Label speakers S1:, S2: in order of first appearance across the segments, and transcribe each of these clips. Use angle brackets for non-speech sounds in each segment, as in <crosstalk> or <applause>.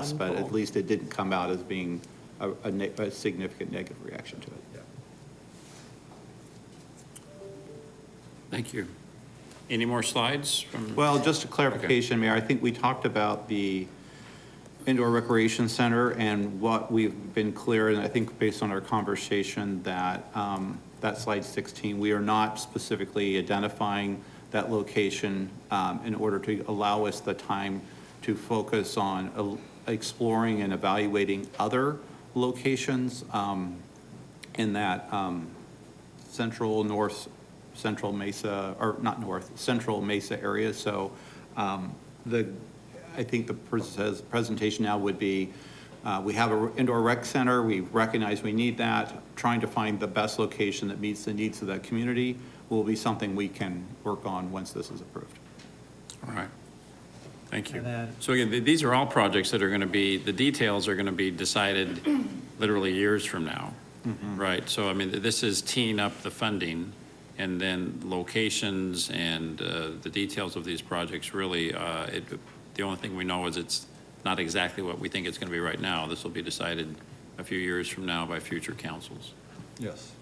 S1: us, but at least it didn't come out as being a, a ne- a significant negative reaction to it.
S2: Thank you. Any more slides from?
S1: Well, just a clarification, Mayor, I think we talked about the indoor recreation center and what we've been clear, and I think based on our conversation that, um, that slide 16, we are not specifically identifying that location um, in order to allow us the time to focus on el- exploring and evaluating other locations um, in that, um, central, north, central Mesa, or not north, central Mesa area. So um, the, I think the pres- says- presentation now would be, uh, we have an indoor rec center, we recognize we need that, trying to find the best location that meets the needs of that community will be something we can work on once this is approved.
S2: All right. Thank you.
S3: And then-
S2: So again, th- these are all projects that are going to be, the details are going to be decided literally years from now,
S1: Mm-hmm.
S2: right? So I mean, th- this is teeing up the funding and then locations and uh, the details of these projects really, uh, it, the only thing we know is it's not exactly what we think it's going to be right now. This will be decided a few years from now by future councils.
S1: Yes.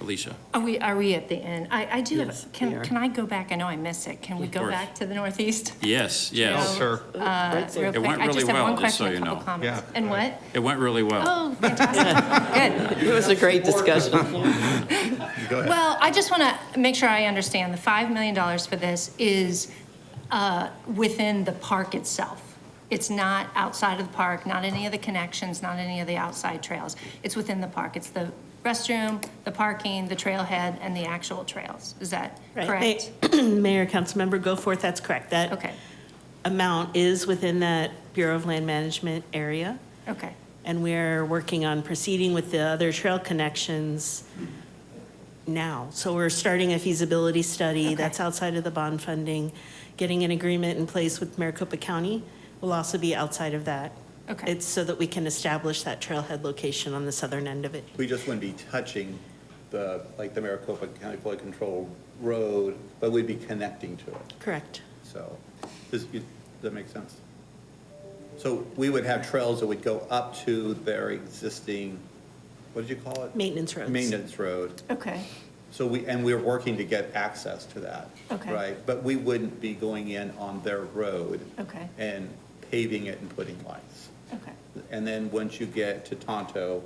S2: Alicia?
S4: Are we, are we at the end? I, I do
S5: Yes,
S4: have,
S5: we
S4: can,
S5: are.
S4: can I go back? I know I missed it. Can we
S2: Of
S4: go
S2: course.
S4: back to the Northeast?
S2: Yes, yes.
S4: So,
S1: Sure.
S4: uh,
S5: Right there.
S4: real
S5: It
S4: quick,
S2: went
S4: I just
S2: really
S4: have
S2: well,
S4: one
S2: just so
S4: question, a
S2: you
S4: couple
S2: know.
S4: comments.
S1: Yeah.
S4: And what?
S2: It went really well.
S4: Oh, fantastic. Good.
S5: It was a great discussion.
S4: Well, I just want to make sure I understand. The $5 million for this is uh, within the park itself. It's not outside of the park, not any of the connections, not any of the outside trails. It's within the park. It's the restroom, the parking, the trailhead, and the actual trails. Is that
S6: Right.
S4: correct?
S6: Ma- <clears throat> Mayor, Councilmember Goforth, that's correct. That
S4: Okay,
S6: amount is within that Bureau of Land Management area,
S4: okay.
S6: and we're working on proceeding with the other trail connections now. So we're starting a feasibility study that's outside of the bond funding. Getting an agreement in place with Maricopa County will also be outside of that.
S4: Okay.
S6: It's so that we can establish that trailhead location on the southern end of it.
S1: We just wouldn't be touching the, like the Maricopa County Flood Control Road, but we'd be connecting to it.
S6: Correct.
S1: So, does, you- that make sense? So we would have trails that would go up to their existing, what did you call it?
S6: Maintenance roads.
S1: Maintenance road.
S4: Okay,
S1: So we, and we're working to get access to that.
S4: Okay.
S1: Right? But we wouldn't be going in on their road.
S4: Okay.
S1: And paving it and putting lights.
S4: okay,
S1: And then once you get to Tonto,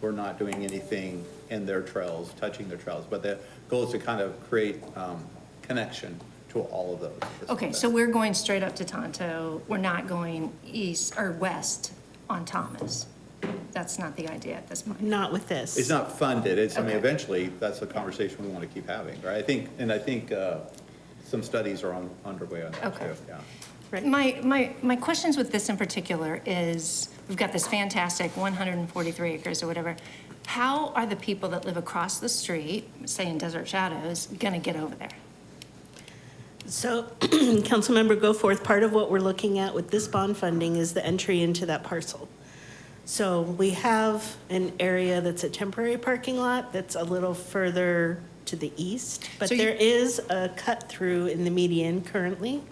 S1: we're not doing anything in their trails, touching their trails. But the goal is to kind of create, um, connection to all of those.
S4: okay, so we're going straight up to Tonto, we're not going east or west on Thomas. That's not the idea at this point.
S6: Not with this.
S1: It's not funded, it's, I mean,
S4: Okay.
S1: eventually, that's a conversation we want to keep having, right? I think, and I think uh, some studies are on, underway on that
S4: Okay.
S1: too, yeah.
S6: Right.
S4: My, my, my questions with this in particular is, we've got this fantastic 143 acres or whatever. How are the people that live across the street, say in Desert Shadows, gonna get over there?
S6: So, <clears throat> Councilmember Goforth, part of what we're looking at with this bond funding is the entry into that parcel. So we have an area that's a temporary parking lot that's a little further to the east, but
S4: So you-
S6: there is a cut-through in the median currently,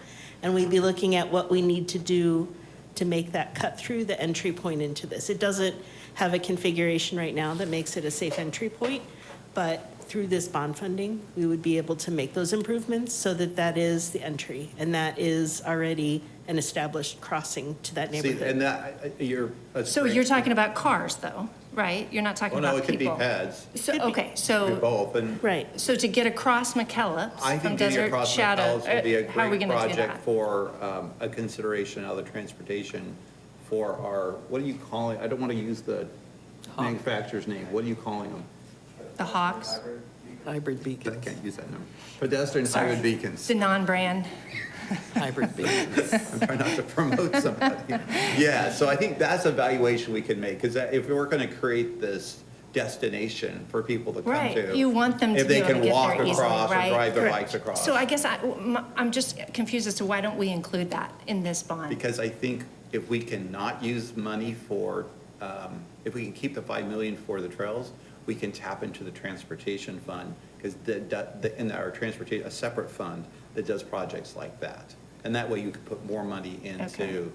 S6: and we'd be looking at what we need to do to make that cut-through the entry point into this. It doesn't have a configuration right now that makes it a safe entry point, but through this bond funding, we would be able to make those improvements so that that is the entry, and that is already an established crossing to that
S1: See,
S6: neighborhood.
S1: and that, I- I- you're. that's
S4: So
S1: great.
S4: you're talking about cars though, right? You're not talking
S1: Well, no,
S4: about
S1: it could be
S4: people.
S1: pads, it
S4: So, okay,
S1: could be
S4: so
S1: both, and
S6: Right.
S4: So to get across McKellips
S1: I
S4: from
S1: think getting
S4: Desert
S1: across the
S4: Shadow,
S1: Palace would be a
S4: uh, how are we
S1: great
S4: gonna do that?
S1: project for um, a consideration of the transportation for our, what are you calling, I don't want to use the manufacturer's name, what are you calling them?
S4: The Hawks,
S5: Hybrid
S1: I
S5: beacons,
S1: can't use that number. Pedestrian highway beacons.
S4: the non-brand,
S5: hybrid beacons.
S1: I'm trying not to promote somebody. Yeah, so I think that's a valuation we can make, because if we're going to create this destination for people to come
S4: right?
S1: to.
S4: You want them to be able to get
S1: If
S4: there
S1: they can walk
S4: easily,
S1: across or
S4: right?
S1: drive their bikes across.
S4: So I guess I, am just confused as to why don't we include that in this bond?
S1: Because I think if we cannot use money for, um, if we can keep the five million for the trails, we can tap into the transportation fund, because the, the, in our transportation, a separate fund that does projects like that. And that way you could put more money
S4: Okay.
S1: into